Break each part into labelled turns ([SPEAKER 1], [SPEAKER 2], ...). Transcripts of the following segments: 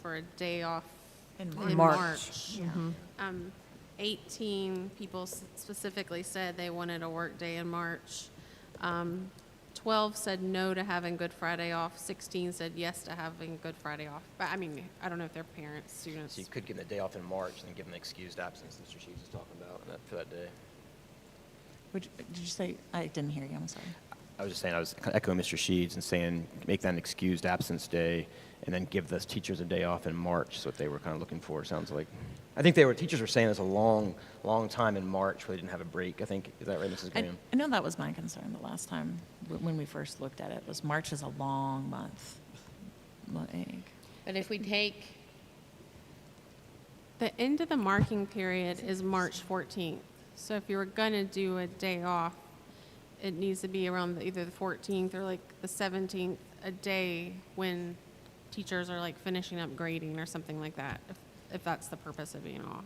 [SPEAKER 1] for a day off
[SPEAKER 2] In
[SPEAKER 1] in
[SPEAKER 2] March. Mm-hmm.
[SPEAKER 1] March. Um, 18 people s- specifically said they wanted a work day in March. Um, 12 said no to having Good Friday off. 16 said yes to having Good Friday off. But I mean, I don't know if they're parents, students.
[SPEAKER 3] So you could give them the day off in March and then give them the excused absence Mr. Sheets was talking about and that- for that day.
[SPEAKER 2] Would, you- did you say, I didn't hear you, I'm sorry.
[SPEAKER 3] I was just saying, I was kinda echoing Mr. Sheets and saying, make that an excused absence day and then give the teachers a day off in March, is what they were kind of looking for, it sounds like. I think they were, teachers were saying it's a long, long time in March where they didn't have a break, I think. Is that right, Mrs.
[SPEAKER 2] I,
[SPEAKER 3] Graham?
[SPEAKER 2] I know that was my concern the last time, w- when we first looked at it, was March is a long month. Like,
[SPEAKER 4] But if we take,
[SPEAKER 1] The end of the marking period is March 14th. So if you were going to do a day off, it needs to be around the- either the 14th or like the 17th, a day when teachers are like finishing up grading or something like that, if, if that's the purpose of being off.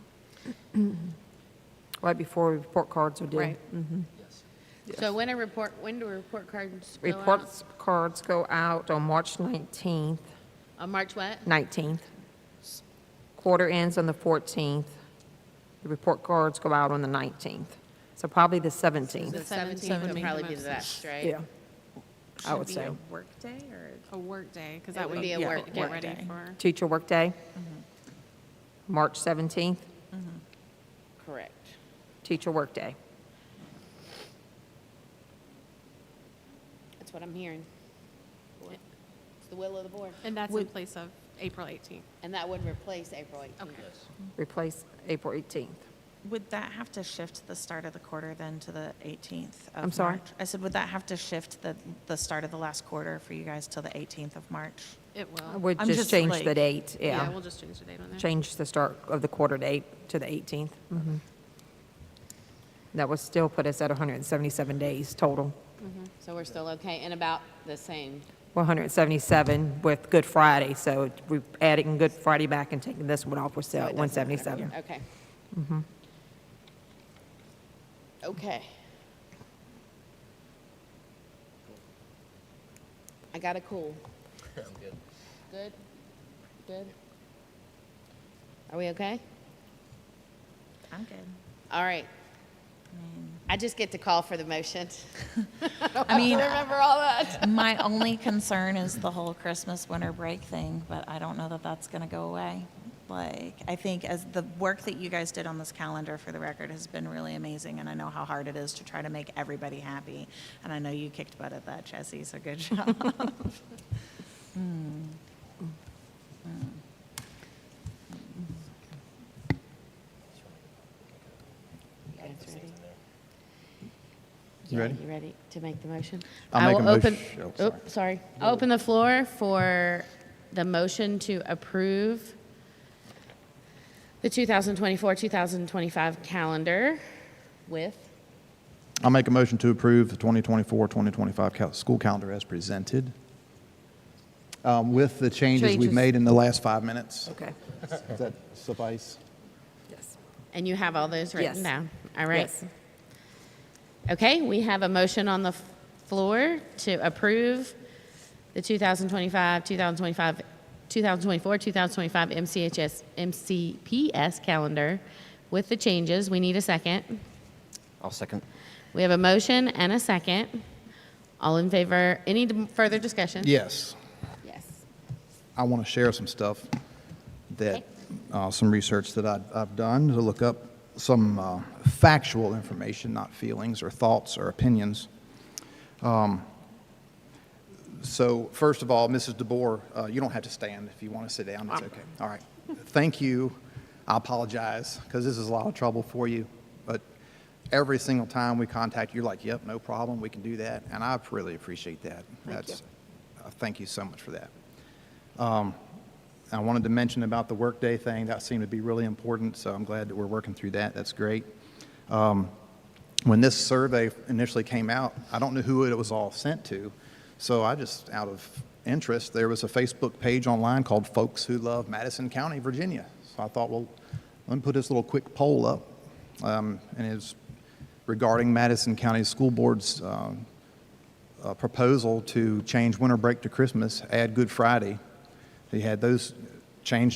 [SPEAKER 5] Right before report cards are due. Mm-hmm.
[SPEAKER 1] Right.
[SPEAKER 4] so when a report, when do report cards go out?
[SPEAKER 5] Reports cards go out on March 19th,
[SPEAKER 4] On March what?
[SPEAKER 5] 19th. Quarter ends on the 14th. The report cards go out on the 19th. So probably the
[SPEAKER 4] The
[SPEAKER 5] 17th,
[SPEAKER 4] 17th would probably be the best, right?
[SPEAKER 5] yeah. I
[SPEAKER 1] Should
[SPEAKER 5] would
[SPEAKER 1] be
[SPEAKER 5] say.
[SPEAKER 1] a work day or? A work day, because
[SPEAKER 4] It
[SPEAKER 1] that
[SPEAKER 4] would
[SPEAKER 1] way
[SPEAKER 4] be a
[SPEAKER 1] you
[SPEAKER 4] work-
[SPEAKER 1] get
[SPEAKER 4] work
[SPEAKER 1] ready
[SPEAKER 2] day.
[SPEAKER 1] for.
[SPEAKER 5] Teacher workday, March 17th,
[SPEAKER 4] Correct.
[SPEAKER 5] teacher workday.
[SPEAKER 4] That's what I'm hearing. It's the will of the board.
[SPEAKER 1] And that's in place of April 18th.
[SPEAKER 4] And that would replace April 18th.
[SPEAKER 5] Replace April 18th.
[SPEAKER 2] would that have to shift the start of the quarter then to the 18th of
[SPEAKER 5] I'm sorry?
[SPEAKER 2] March? I said, would that have to shift the, the start of the last quarter for you guys till the 18th of March?
[SPEAKER 1] It
[SPEAKER 4] Oh,
[SPEAKER 1] will.
[SPEAKER 5] We'll
[SPEAKER 2] I'm
[SPEAKER 5] just
[SPEAKER 2] just
[SPEAKER 5] change
[SPEAKER 2] like-
[SPEAKER 5] the date,
[SPEAKER 1] Yeah,
[SPEAKER 5] yeah.
[SPEAKER 1] we'll just change the date on there.
[SPEAKER 5] Change the start of the quarter date to the 18th.
[SPEAKER 4] Mm-hmm.
[SPEAKER 5] Mhm. That would still put us at 177 days total.
[SPEAKER 4] So we're still okay and about the same.
[SPEAKER 5] 177 with Good Friday, so we're adding Good Friday back and taking this one off, we're still
[SPEAKER 4] So
[SPEAKER 5] at
[SPEAKER 4] it doesn't matter.
[SPEAKER 5] 177.
[SPEAKER 4] Okay.
[SPEAKER 1] Mm-hmm.
[SPEAKER 4] Okay. I got a cool. Good? Good? Are we okay?
[SPEAKER 2] I'm good.
[SPEAKER 4] All right. I just get to call for the motion.
[SPEAKER 2] I mean,
[SPEAKER 4] Remember all that?
[SPEAKER 2] my only concern is the whole Christmas winter break thing, but I don't know that that's going to go away. Like, I think as the work that you guys did on this calendar for the record has been really amazing, and I know how hard it is to try to make everybody happy. And I know you kicked butt at that, Chessie, so good job.
[SPEAKER 4] You guys ready?
[SPEAKER 6] You
[SPEAKER 4] Yeah,
[SPEAKER 6] ready?
[SPEAKER 4] You ready to make the motion?
[SPEAKER 6] I'll
[SPEAKER 4] I
[SPEAKER 6] make
[SPEAKER 4] will
[SPEAKER 6] a
[SPEAKER 4] open-
[SPEAKER 6] motion- oh,
[SPEAKER 4] Oop, sorry. I'll Open the floor for the motion to approve the 2024-2025 calendar with,
[SPEAKER 6] I'll make a motion to approve the 2024-2025 cal- school calendar as presented, um, with the changes we've
[SPEAKER 5] Changes.
[SPEAKER 6] made in the last five minutes.
[SPEAKER 5] Okay,
[SPEAKER 6] Does that suffice?
[SPEAKER 5] yes.
[SPEAKER 4] and you have all those written
[SPEAKER 5] Yes.
[SPEAKER 4] down? All right.
[SPEAKER 5] Yes.
[SPEAKER 4] Okay, we have a motion on the f- floor to approve the 2025, 2025, 2024, 2025 MCHS, MCPS calendar with the changes. We need a second.
[SPEAKER 3] I'll second.
[SPEAKER 4] We have a motion and a second. All in favor, any d- further discussion?
[SPEAKER 6] Yes.
[SPEAKER 4] Yes.
[SPEAKER 6] I want to share some stuff that, uh, some research that I've, I've done to look up some uh, factual information, not feelings or thoughts or opinions. Um, so, first of all, Mrs. DeBoer, uh, you don't have to stand if you want to sit down. It's okay. All right. Thank you. I apologize because this is a lot of trouble for you, but every single time we contact you, you're like, "Yep, no problem. We can do that," and I really appreciate that. That's uh, thank you so much for that. I wanted to mention about the workday thing. That seemed to be really important, so I'm glad that we're working through that. That's great. Um, when this survey initially came out, I don't know who it was all sent to, so I just, out of interest, there was a Facebook page online called Folks Who Love Madison County, Virginia. So I thought, well, let me put this little quick poll up, um, and it's regarding Madison County School Board's um, uh, proposal to change winter break to Christmas, add Good Friday. They had those change